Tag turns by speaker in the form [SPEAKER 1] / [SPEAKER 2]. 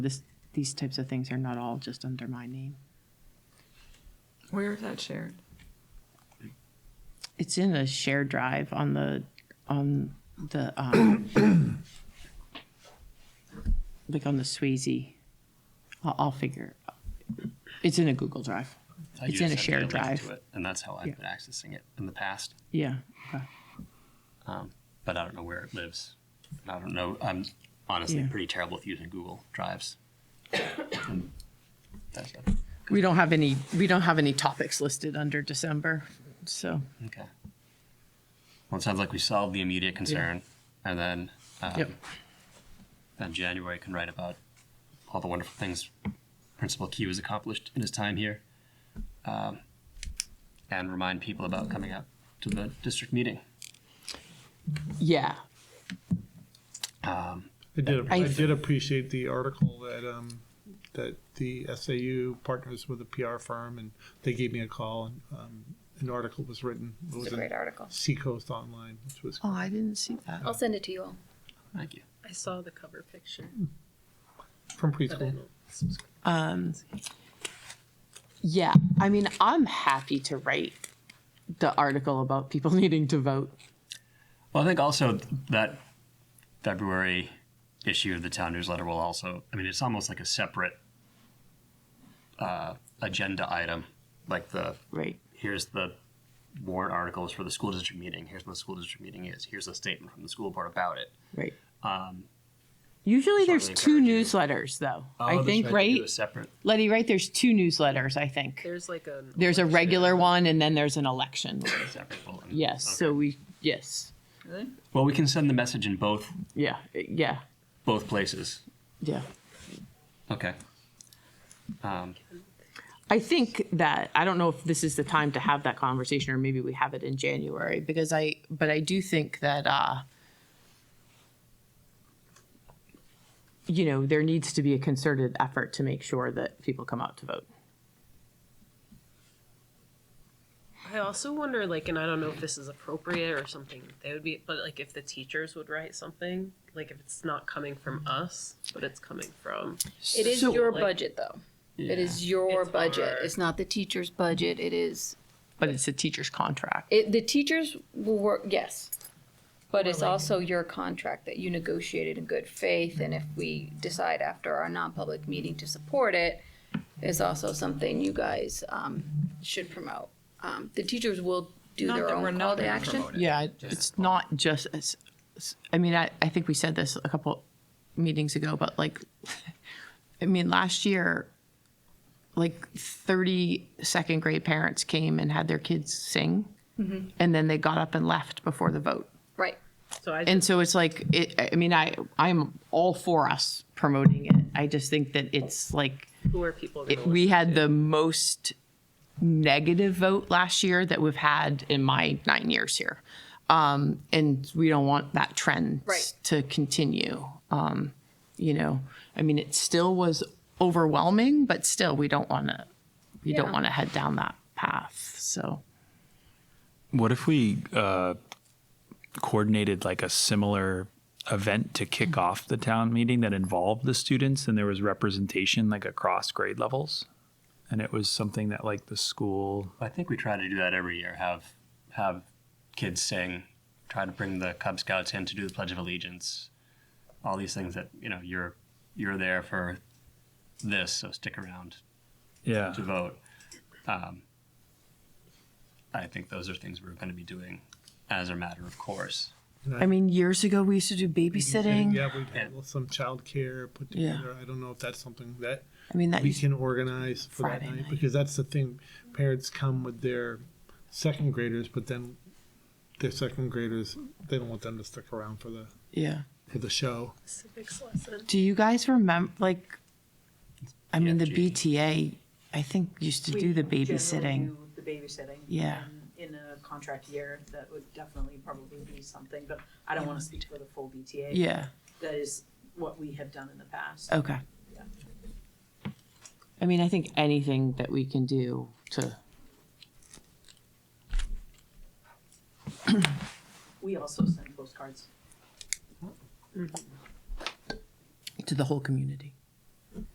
[SPEAKER 1] This, these types of things are not all just under my name.
[SPEAKER 2] Where is that shared?
[SPEAKER 1] It's in a shared drive on the, on the, um, like on the Swayze. I'll, I'll figure. It's in a Google Drive.
[SPEAKER 3] I
[SPEAKER 1] It's
[SPEAKER 3] usually
[SPEAKER 1] in a
[SPEAKER 3] have to
[SPEAKER 1] shared
[SPEAKER 3] get link
[SPEAKER 1] drive.
[SPEAKER 3] to it, And that's how
[SPEAKER 1] Yeah.
[SPEAKER 3] I've been accessing it in the past, um,
[SPEAKER 1] Yeah. okay.
[SPEAKER 3] but I don't know where it lives. And I don't know, I'm honestly
[SPEAKER 1] Yeah.
[SPEAKER 3] pretty terrible with using Google Drives. That's it.
[SPEAKER 1] We don't have any, we don't have any topics listed under December, so.
[SPEAKER 3] Okay. Well, it sounds like we solved the immediate concern, and then, um,
[SPEAKER 1] Yep.
[SPEAKER 3] then January can write about all the wonderful things Principal Q has accomplished in his time here, um, and remind people about coming out to the district meeting.
[SPEAKER 1] Yeah.
[SPEAKER 4] I did,
[SPEAKER 1] I-
[SPEAKER 4] I did appreciate the article that, um, that the SAU partners with a PR firm and they gave me a call and, um, an article was written. It was
[SPEAKER 5] It's a
[SPEAKER 4] in
[SPEAKER 5] great article.
[SPEAKER 4] Seacoast Online, which was,
[SPEAKER 1] Oh, I didn't see that.
[SPEAKER 5] I'll send it to you all.
[SPEAKER 3] Thank you.
[SPEAKER 6] I saw the cover picture.
[SPEAKER 4] from
[SPEAKER 6] but I
[SPEAKER 4] preschool.
[SPEAKER 6] don't subscribe.
[SPEAKER 1] Yeah, I mean, I'm happy to write the article about people needing to vote.
[SPEAKER 3] Well, I think also that February issue of the town newsletter will also, I mean, it's almost like a separate uh, agenda item, like the
[SPEAKER 1] Right.
[SPEAKER 3] here's the warrant articles for the school district meeting, here's what the school district meeting is, here's a statement from the school board about it.
[SPEAKER 1] Right.
[SPEAKER 3] Um,
[SPEAKER 1] Usually there's
[SPEAKER 3] Certainly
[SPEAKER 1] two
[SPEAKER 3] encourage
[SPEAKER 1] newsletters though.
[SPEAKER 3] Oh,
[SPEAKER 1] I think, right?
[SPEAKER 3] A separate,
[SPEAKER 1] Letty, right? There's two newsletters, I think.
[SPEAKER 6] There's like a.
[SPEAKER 1] There's a regular one and then there's an election.
[SPEAKER 3] a separate bulletin.
[SPEAKER 1] Yes, so we, yes,
[SPEAKER 6] Really?
[SPEAKER 3] Well, we can send the message in both,
[SPEAKER 1] yeah, yeah,
[SPEAKER 3] both places.
[SPEAKER 1] yeah.
[SPEAKER 3] Okay. Um,
[SPEAKER 1] I think that I don't know if this is the time to have that conversation, or maybe we have it in January because I. But I do think that uh, you know there needs to be a concerted effort to make sure that people come out to vote.
[SPEAKER 6] I also wonder, like, and I don't know if this is appropriate or something. They would be, but like, if the teachers would write something, like, if it's not coming from us, but it's coming from.
[SPEAKER 5] It is
[SPEAKER 1] So-
[SPEAKER 5] your
[SPEAKER 6] Like-
[SPEAKER 5] budget, though. It is your
[SPEAKER 6] It's
[SPEAKER 5] budget.
[SPEAKER 6] our-
[SPEAKER 5] It's not the teacher's budget. It is
[SPEAKER 1] But it's a teacher's contract.
[SPEAKER 5] it, the teachers will work. Yes, but it's also your contract that you negotiated in good faith. And if we decide after our non-public meeting to support it, is also something you guys um, should promote. Um, the teachers will do
[SPEAKER 2] Not
[SPEAKER 5] their
[SPEAKER 2] that
[SPEAKER 5] own
[SPEAKER 2] we're
[SPEAKER 5] call
[SPEAKER 2] not
[SPEAKER 5] to
[SPEAKER 2] gonna
[SPEAKER 5] action.
[SPEAKER 3] promote it.
[SPEAKER 1] Yeah, it's not just. It's, it's- I mean, I, I think we said this a couple meetings ago, but like, I mean, last year, like 30 second grade parents came and had their kids sing, and then they got up and left before the vote.
[SPEAKER 5] Right.
[SPEAKER 6] So I.
[SPEAKER 1] And so it's like, it, I mean, I I'm all for us promoting it. I just think that it's like
[SPEAKER 6] who are people?
[SPEAKER 1] it-
[SPEAKER 6] Gonna
[SPEAKER 1] we
[SPEAKER 6] listen?
[SPEAKER 1] had the most negative vote last year that we've had in my nine years here. Um, and we don't want that trend
[SPEAKER 5] Right.
[SPEAKER 1] to continue. Um, you know, I mean, it still was overwhelming, but still, we don't want to, we don't
[SPEAKER 5] Yeah.
[SPEAKER 1] want to head down that path. So,
[SPEAKER 7] What if we uh, coordinated like a similar event to kick off the town meeting that involved the students and there was representation like across grade levels? And it was something that like the school,
[SPEAKER 3] I think we try to do that every year. Have have kids sing, try to bring the Cub Scouts in to do the Pledge of Allegiance, all these things that you know you're you're there for this, so stick around
[SPEAKER 7] yeah,
[SPEAKER 3] to vote. Um, I think those are things we're going to be doing as a matter of course.
[SPEAKER 1] I mean, years ago, we used to do babysitting.
[SPEAKER 4] Yeah, we had some childcare put
[SPEAKER 1] Yeah.
[SPEAKER 4] together. I don't know if that's something that
[SPEAKER 1] I mean, that
[SPEAKER 4] we
[SPEAKER 1] used
[SPEAKER 4] can organize for that
[SPEAKER 1] Friday
[SPEAKER 4] night
[SPEAKER 1] night.
[SPEAKER 4] because that's the thing. Parents come with their second graders, but then their second graders, they don't want them to stick around for the,
[SPEAKER 1] yeah.
[SPEAKER 4] for the show.
[SPEAKER 6] Civics lesson.
[SPEAKER 1] Do you guys remember, like, I mean, the
[SPEAKER 3] BFG.
[SPEAKER 1] BTA, I think, used to do the
[SPEAKER 8] We generally
[SPEAKER 1] babysitting.
[SPEAKER 8] do The babysitting.
[SPEAKER 1] Yeah.
[SPEAKER 8] And In a contract year, that would definitely probably be something, but I don't want to speak for the full BTA.
[SPEAKER 1] Yeah, Oh.
[SPEAKER 8] That is what we have done in the past.
[SPEAKER 1] okay. I mean, I think anything that we can do to,
[SPEAKER 8] We also send postcards.
[SPEAKER 1] to the whole community.